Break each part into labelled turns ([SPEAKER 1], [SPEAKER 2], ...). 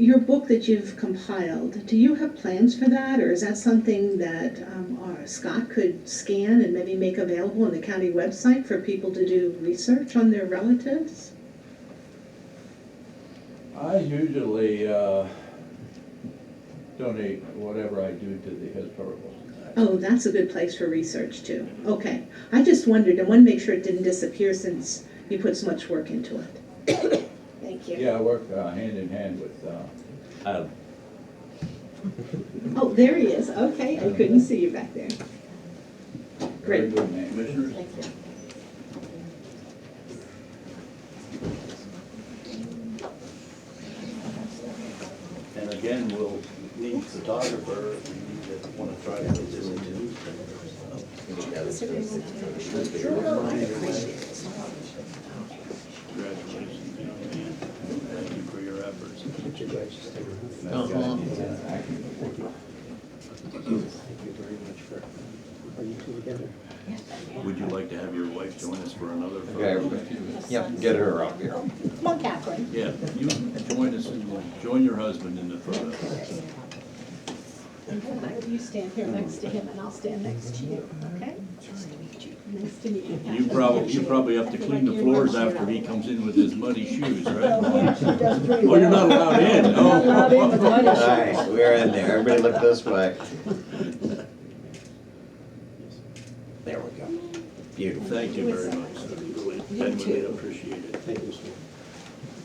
[SPEAKER 1] your book that you've compiled, do you have plans for that, or is that something that um, our Scott could scan and maybe make available on the county website for people to do research on their relatives?
[SPEAKER 2] I usually uh, donate whatever I do to the historical society.
[SPEAKER 1] Oh, that's a good place for research too. Okay, I just wondered, I want to make sure it didn't disappear since you put so much work into it. Thank you.
[SPEAKER 2] Yeah, I work uh, hand in hand with uh, Adam.
[SPEAKER 1] Oh, there he is, okay, I couldn't see you back there.
[SPEAKER 2] Very
[SPEAKER 1] Great.
[SPEAKER 2] good man.
[SPEAKER 3] Commissioners,
[SPEAKER 1] Thank you.
[SPEAKER 3] and again, we'll need photographer, we need to wanna try to get this into newspapers. Congratulations, young man. Thank you for your efforts.
[SPEAKER 2] That guy needs an acting award.
[SPEAKER 4] Thank you very much for, are you two together?
[SPEAKER 3] Would you like to have your wife join us for another photo?
[SPEAKER 5] Okay, yep, get her up here.
[SPEAKER 6] Come on, Catherine.
[SPEAKER 3] Yeah, you join us, join your husband in the photo.
[SPEAKER 6] You stand here next to him, and I'll stand next to you, okay? Nice to meet you.
[SPEAKER 3] You probably, you probably have to clean the floors after he comes in with his muddy shoes, right? Oh, you're not allowed in,
[SPEAKER 6] Not allowed in with
[SPEAKER 3] oh.
[SPEAKER 6] muddy
[SPEAKER 5] All right, we're in there. Everybody look this way. There we go. Beautiful.
[SPEAKER 3] Thank you very much, sir. And we really appreciate it.
[SPEAKER 4] Thank you, sir.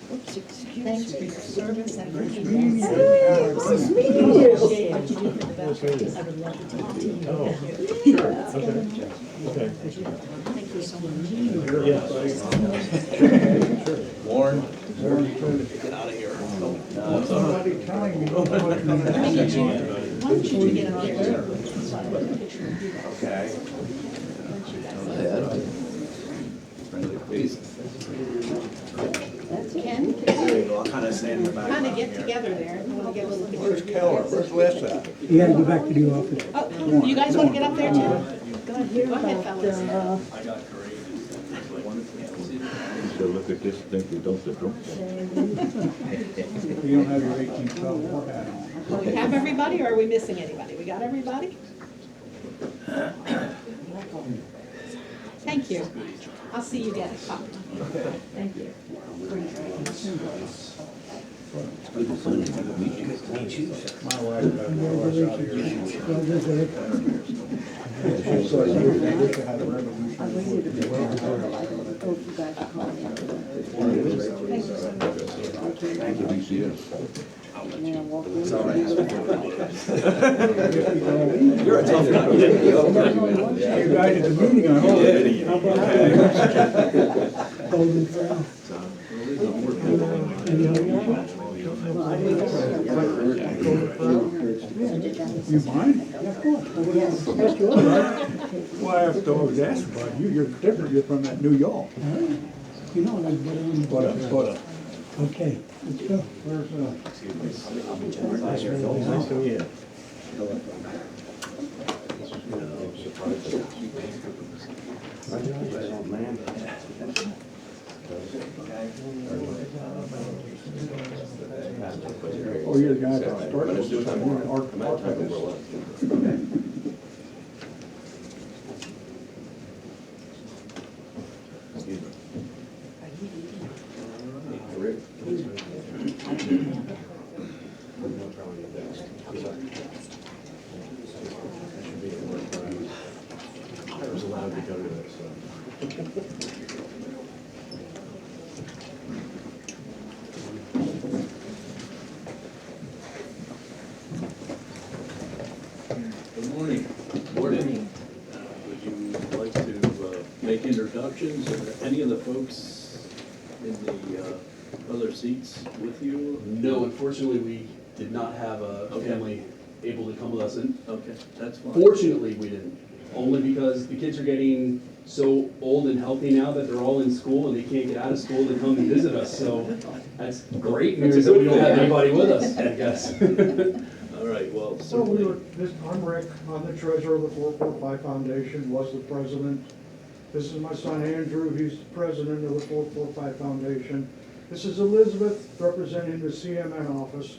[SPEAKER 6] Thank you for your service and for your What you do for the veterans, I would love to talk to you.
[SPEAKER 3] Warren,
[SPEAKER 6] Why don't you get up there?
[SPEAKER 5] Okay.
[SPEAKER 3] friendly face.
[SPEAKER 6] Ken,
[SPEAKER 3] I'll kind of stand in the back.
[SPEAKER 6] kind of get together there, you want to get a little picture. of you guys.
[SPEAKER 4] You gotta go back to the office.
[SPEAKER 6] Oh, you guys want to get up there too? Go ahead, go ahead, fellas.
[SPEAKER 3] So look at this, think we don't have drunk.
[SPEAKER 7] You don't have your eighteen twelve war hat on.
[SPEAKER 6] Do we have everybody, or are we missing anybody? We got everybody? Thank you. I'll see you again. Bye. Thank you.
[SPEAKER 7] My wife, uh, my wife's out here. They used to have a revolution.
[SPEAKER 5] You're a tough guy.
[SPEAKER 7] You guys at the meeting, I hope. You mind? Yeah, of course. Why, I've always asked about you, you're different, you're from that New York.
[SPEAKER 4] You know, like, what I'm-
[SPEAKER 7] But, uh, but, uh,
[SPEAKER 4] okay.
[SPEAKER 7] where's, uh, oh, you're the guy that started this, I'm an art- archivist.
[SPEAKER 3] Good morning. Morning. Uh, Would you like to uh, make introductions, or any of the folks in the uh, other seats with you?
[SPEAKER 8] No, unfortunately, we did not have a a
[SPEAKER 3] Okay.
[SPEAKER 8] family able to come with us. And
[SPEAKER 3] Okay, that's fine.
[SPEAKER 8] fortunately, we didn't. Only because the kids are getting so old and healthy now that they're all in school and they can't get out of school to come and visit us. So that's great
[SPEAKER 3] That's a
[SPEAKER 8] news that we
[SPEAKER 3] good
[SPEAKER 8] don't have
[SPEAKER 3] thing.
[SPEAKER 8] anybody with us, I guess.
[SPEAKER 3] All right, well,
[SPEAKER 9] So we were,
[SPEAKER 3] certainly,
[SPEAKER 9] this, I'm Rick, I'm the treasurer of the four four five foundation, was the president. This is my son Andrew, he's the president of the four four five foundation. This is Elizabeth representing the CMN office.